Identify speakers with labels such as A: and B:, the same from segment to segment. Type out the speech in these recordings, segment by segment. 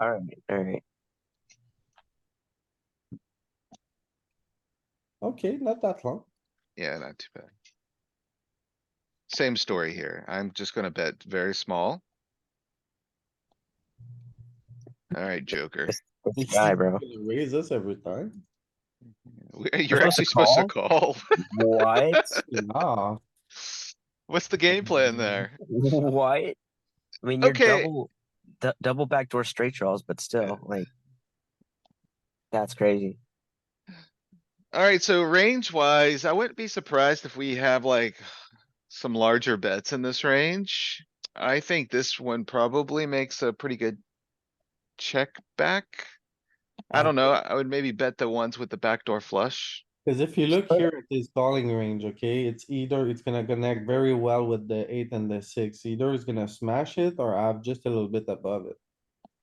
A: All right, all right.
B: Okay, not that long.
C: Yeah, not too bad. Same story here. I'm just gonna bet very small. Alright, Joker.
A: Good guy, bro.
B: Raise us every time.
C: We-
A: supposed
C: You're
A: to
C: actually supposed to call.
A: What? Ah.
D: Oh,
C: What's the game plan there?
A: What? I mean, you're
C: Okay.
A: double, d- double backdoor straight draws, but still, like, that's crazy.
C: Alright, so range wise, I wouldn't be surprised if we have like some larger bets in this range. I think this one probably makes a pretty good check back. I don't know. I would maybe bet the ones with the backdoor flush.
B: Cause if you look here at this calling range, okay, it's either it's gonna connect very well with the eight and the six. Either it's gonna smash it or have just a little bit above it.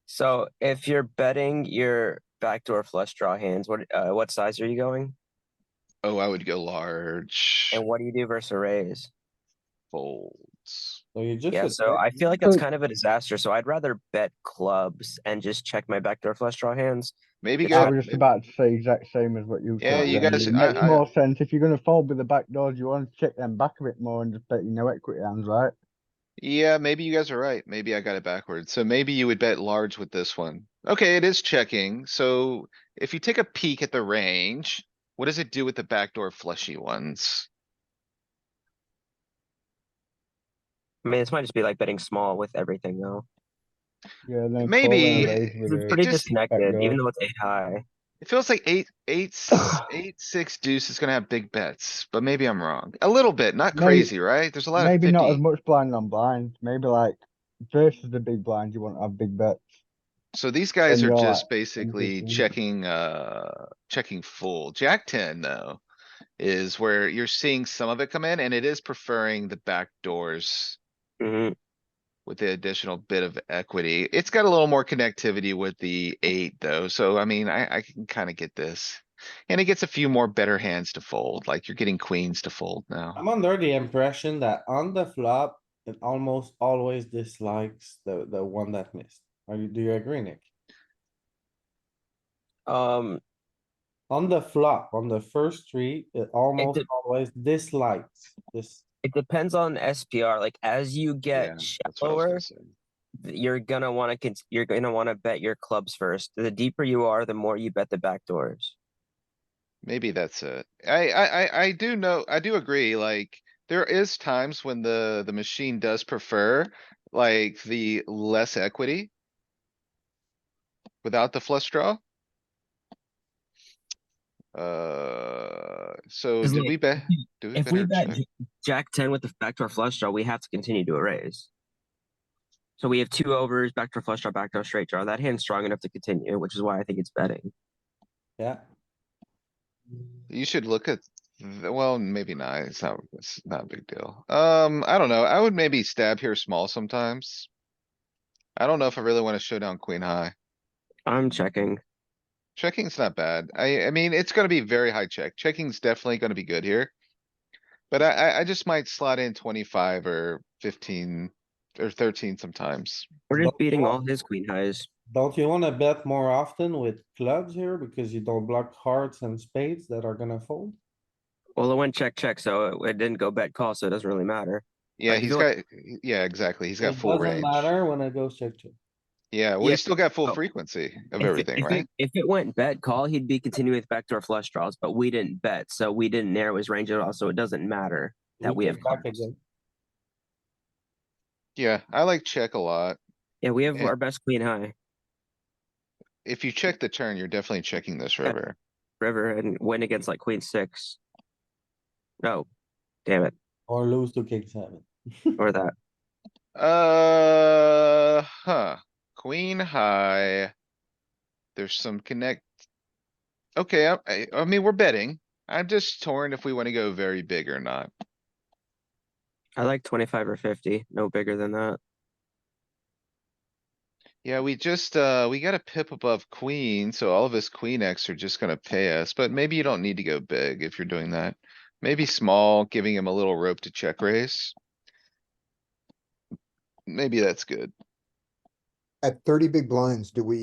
A: So if you're betting your backdoor flush draw hands, what, uh, what size are you going?
C: Oh, I would go large
A: And what do you do versus a raise?
C: folds.
B: So you just.
A: Yeah, so I feel like that's kind of a disaster, so I'd rather bet clubs and just check my backdoor flush draw hands.
C: Maybe
A: Yeah,
D: I
C: go,
D: was just about to say exact same as what you.
C: Yeah,
D: said
C: you
D: then.
C: guys-
D: It
C: I-
D: makes
C: I-
D: more sense if you're gonna fold with the back doors. You want to check them back a bit more and just bet you no equity hands, right?
C: yeah, maybe you guys are right. Maybe I got it backwards. So maybe you would bet large with this one. Okay, it is checking. So if you take a peek at the range, what does it do with the backdoor fleshy ones?
A: I mean, this might just be like betting small with everything though.
D: Yeah, then fold
C: Maybe-
D: and raise with
A: It's
D: it.
A: pretty
C: just-
A: disconnected,
D: Backdoor.
A: even though it's eight high.
C: It feels like eight, eight, s- eight, six deuce is gonna have big bets, but maybe I'm wrong. A little bit, not
D: Maybe-
C: crazy, right? There's a lot of
D: Maybe not as
C: fifty.
D: much blind on blind. Maybe like versus the big blind, you want to have big bets.
C: So these guys
D: and
C: are
D: you're
C: just
D: like
C: basically
D: 15.
C: checking, uh, checking full. Jack ten though. Is where you're seeing some of it come in and it is preferring the back doors.
A: hmm
C: with the additional bit of equity. It's got a little more connectivity with the eight though, so I mean, I, I can kinda get this. And it gets a few more better hands to fold, like you're getting queens to fold now.
B: I'm under the impression that on the flop, it almost always dislikes the, the one that missed. Are you, do you agree, Nick?
A: Um,
B: On the flop, on the first three, it almost
A: did-
B: always dislikes this.
A: it depends on SPR, like as you
C: Yeah,
A: get
C: that's what I was
A: shallower,
C: gonna say.
A: th- you're gonna wanna, cons- you're gonna wanna bet your clubs first. The deeper you are, the more you bet the backdoors.
C: Maybe that's it. I, I, I, I do know, I do agree, like, there is times when the, the machine does prefer, like, the less equity. Without the flush draw. Uh, so
A: 'Cause,
C: did
A: like,
C: we bet?
A: if Hmm, If we bet j- Jack ten with the backdoor flush draw, we have to continue to a raise. So we have two overs, backdoor flush draw, backdoor straight draw. That hand's strong enough to continue, which is why I think it's betting.
B: Yeah,
C: You should look at, th- well, maybe not, it's not, it's not a big deal. Um, I don't know, I would maybe stab here small sometimes. I don't know if I really wanna show down queen high.
A: I'm checking.
C: Checking's not bad. I, I mean, it's gonna be very high check. Checking's definitely gonna be good here. But I, I, I just might slot in twenty-five or fifteen or thirteen sometimes.
A: We're just
B: Don't
A: beating all
B: block.
A: his queen highs.
B: don't you wanna bet more often with clubs here because you don't block hearts and spades that are gonna fold?
A: Well, it went check, check, so it- it didn't go bet call, so it doesn't really matter.
C: Yeah,
A: Like,
C: he's
A: you
C: got, yeah, exactly. He's got
B: It
C: full
B: doesn't
C: range.
B: Matter when it goes check, check.
C: Yeah, well,
A: Yeah.
C: he's still got full
A: Oh.
C: frequency of
A: If it-
C: everything,
A: if
C: right?
A: it- If it went bet call, he'd be continuing with backdoor flush draws, but we didn't bet, so we didn't narrow his range at all, so it doesn't matter that we have
B: check back
A: clubs.
B: again.
C: Yeah, I like check a lot.
A: Yeah, we have
C: Yeah.
A: our best queen high
C: If you check the turn, you're definitely checking this
A: Yeah.
C: river.
A: river and win against like queen six. No, damn it,
B: Or lose to king seven.
A: or that.
C: Uh, huh, queen high. There's some connect. Okay, I, I, I mean, we're betting. I'm just torn if we wanna go very big or not.
A: I like twenty-five or fifty, no bigger than that.
C: Yeah, we just, uh, we got a pip above queen, so all of us queen X are just gonna pay us, but maybe you don't need to go big if you're doing that. Maybe small, giving him a little rope to check raise. Maybe that's good.
E: at thirty big blinds, do we